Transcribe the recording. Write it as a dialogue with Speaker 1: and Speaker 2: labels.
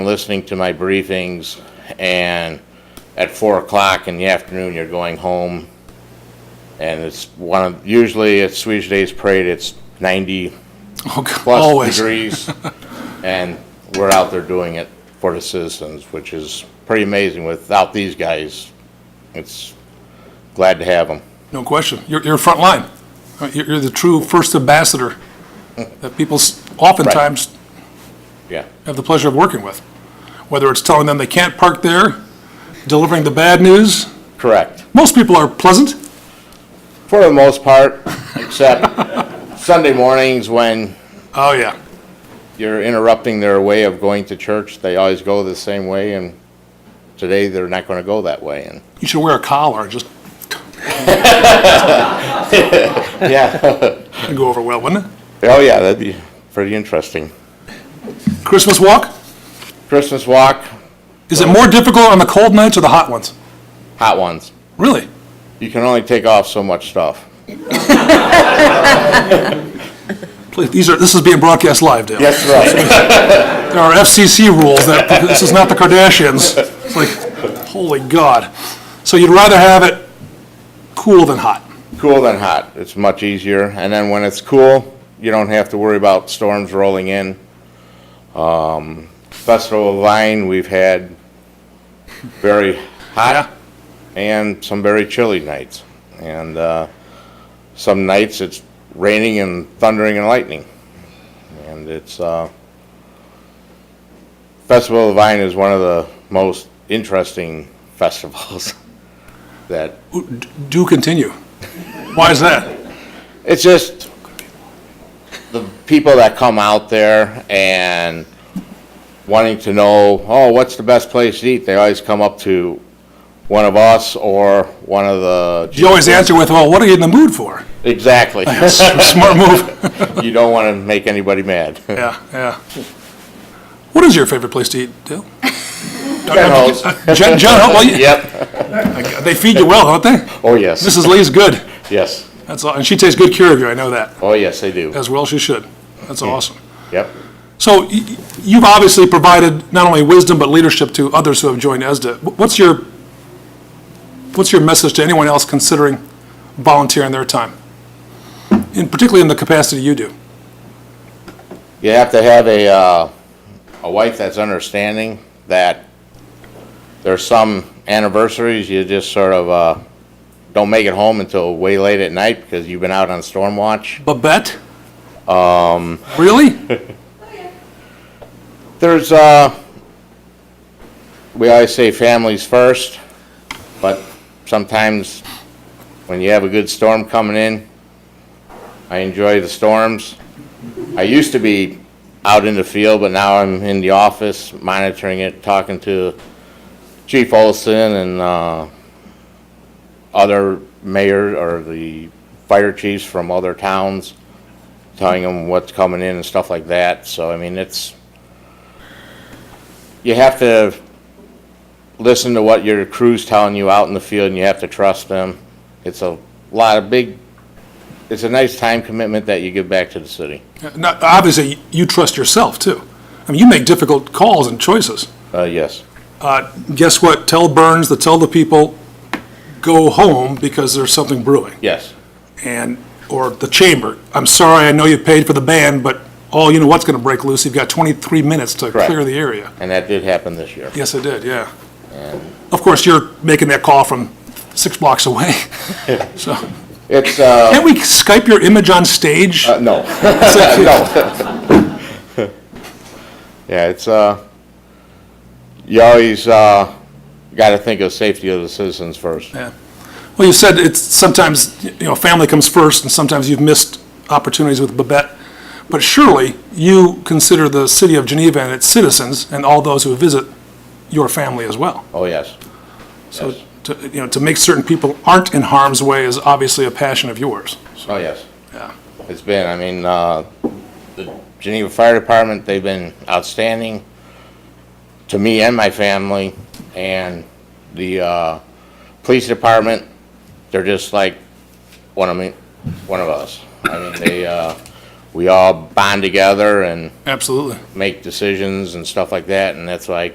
Speaker 1: listening to my briefings, and at four o'clock in the afternoon, you're going home. And it's one of, usually at Swedish Days Parade, it's ninety
Speaker 2: Oh, God,
Speaker 1: plus
Speaker 2: always.
Speaker 1: degrees. And we're out there doing it for the citizens, which is pretty amazing. Without these guys, it's glad to have them.
Speaker 2: No question. You're, you're front line. Uh, You're, you're the true first ambassador that people s- oftentimes
Speaker 1: Yeah.
Speaker 2: have the pleasure of working with. Whether it's telling them they can't park there, delivering the bad news.
Speaker 1: Correct.
Speaker 2: Most people are pleasant.
Speaker 1: For the most part, except Sunday mornings when
Speaker 2: Oh, yeah.
Speaker 1: you're interrupting their way of going to church. They always go the same way, and today they're not going to go that way. And
Speaker 2: You should wear a collar, just
Speaker 1: yeah,
Speaker 2: it'd go over well, wouldn't it?
Speaker 1: oh yeah, that'd be pretty interesting.
Speaker 2: Christmas walk?
Speaker 1: Christmas walk,
Speaker 2: Is it more difficult on the cold nights or the hot ones?
Speaker 1: hot ones.
Speaker 2: Really?
Speaker 1: You can only take off so much stuff.
Speaker 2: Please, these are, this is being broadcast live, Dale.
Speaker 1: That's right.
Speaker 2: There are FCC rules that, this is not the Kardashians. It's like, holy God. So you'd rather have it cool than hot.
Speaker 1: cool than hot. It's much easier. And then when it's cool, you don't have to worry about storms rolling in. Um, Festival of Vine, we've had very hot and some very chilly nights. And uh, some nights it's raining and thundering and lightning. And it's, uh, Festival of Vine is one of the most interesting festivals that
Speaker 2: Do continue. Why is that?
Speaker 1: it's just the people that come out there and wanting to know, oh, what's the best place to eat? They always come up to one of us or one of the.
Speaker 2: You always answer with, well, what are you in the mood for?
Speaker 1: Exactly.
Speaker 2: Smart move.
Speaker 1: You don't want to make anybody mad.
Speaker 2: Yeah, yeah. What is your favorite place to eat, Dale?
Speaker 1: Ho's.
Speaker 2: John, John, Ho- well, you-
Speaker 1: Yep.
Speaker 2: they feed you well, don't they?
Speaker 1: Oh, yes.
Speaker 2: Mrs. Lee's good.
Speaker 1: Yes.
Speaker 2: That's all, and she takes good care of you, I know that,
Speaker 1: Oh, yes, they do.
Speaker 2: as well she should. That's awesome.
Speaker 1: Yep.
Speaker 2: So y- y- you've obviously provided not only wisdom, but leadership to others who have joined ESDA. Wh- What's your, what's your message to anyone else considering volunteering their time? And particularly in the capacity you do.
Speaker 1: you have to have a, uh, a wife that's understanding that there's some anniversaries you just sort of, uh, don't make it home until way late at night because you've been out on storm watch.
Speaker 2: Babette? Um. Really?
Speaker 1: There's, uh, we always say families first, but sometimes when you have a good storm coming in, I enjoy the storms. I used to be out in the field, but now I'm in the office monitoring it, talking to Chief Olson and, uh, other mayor or the fire chiefs from other towns, telling them what's coming in and stuff like that. So, I mean, it's, you have to listen to what your crew's telling you out in the field and you have to trust them. It's a lot of big, it's a nice time commitment that you give back to the city.
Speaker 2: Not, obviously, you trust yourself too. I mean, you make difficult calls and choices.
Speaker 1: Uh, yes,
Speaker 2: Uh, Guess what? Tell Burns to tell the people, go home because there's something brewing.
Speaker 1: yes,
Speaker 2: and, or the chamber, I'm sorry, I know you paid for the band, but all you know what's gonna break loose, you've got 23 minutes to
Speaker 1: Correct.
Speaker 2: clear the area.
Speaker 1: and that did happen this year.
Speaker 2: Yes, I did, yeah. Of course, you're making that call from six blocks away, so,
Speaker 1: It's, uh,
Speaker 2: can't we Skype your image on stage?
Speaker 1: uh, no, no. Yeah, it's, uh, you always, uh, gotta think of safety of the citizens first.
Speaker 2: Yeah. Well, you said it's sometimes, you know, family comes first, and sometimes you've missed opportunities with Babette, but surely you consider the city of Geneva and its citizens and all those who visit your family as well.
Speaker 1: Oh, yes.
Speaker 2: So,
Speaker 1: Yes.
Speaker 2: to, you know, to make certain people aren't in harm's way is obviously a passion of yours.
Speaker 1: Oh, yes.
Speaker 2: Yeah.
Speaker 1: It's been, I mean, uh, the Geneva Fire Department, they've been outstanding to me and my family, and the, uh, police department, they're just like one of me, one of us. I mean, they, uh, we all bond together and
Speaker 2: Absolutely.
Speaker 1: make decisions and stuff like that, and that's why I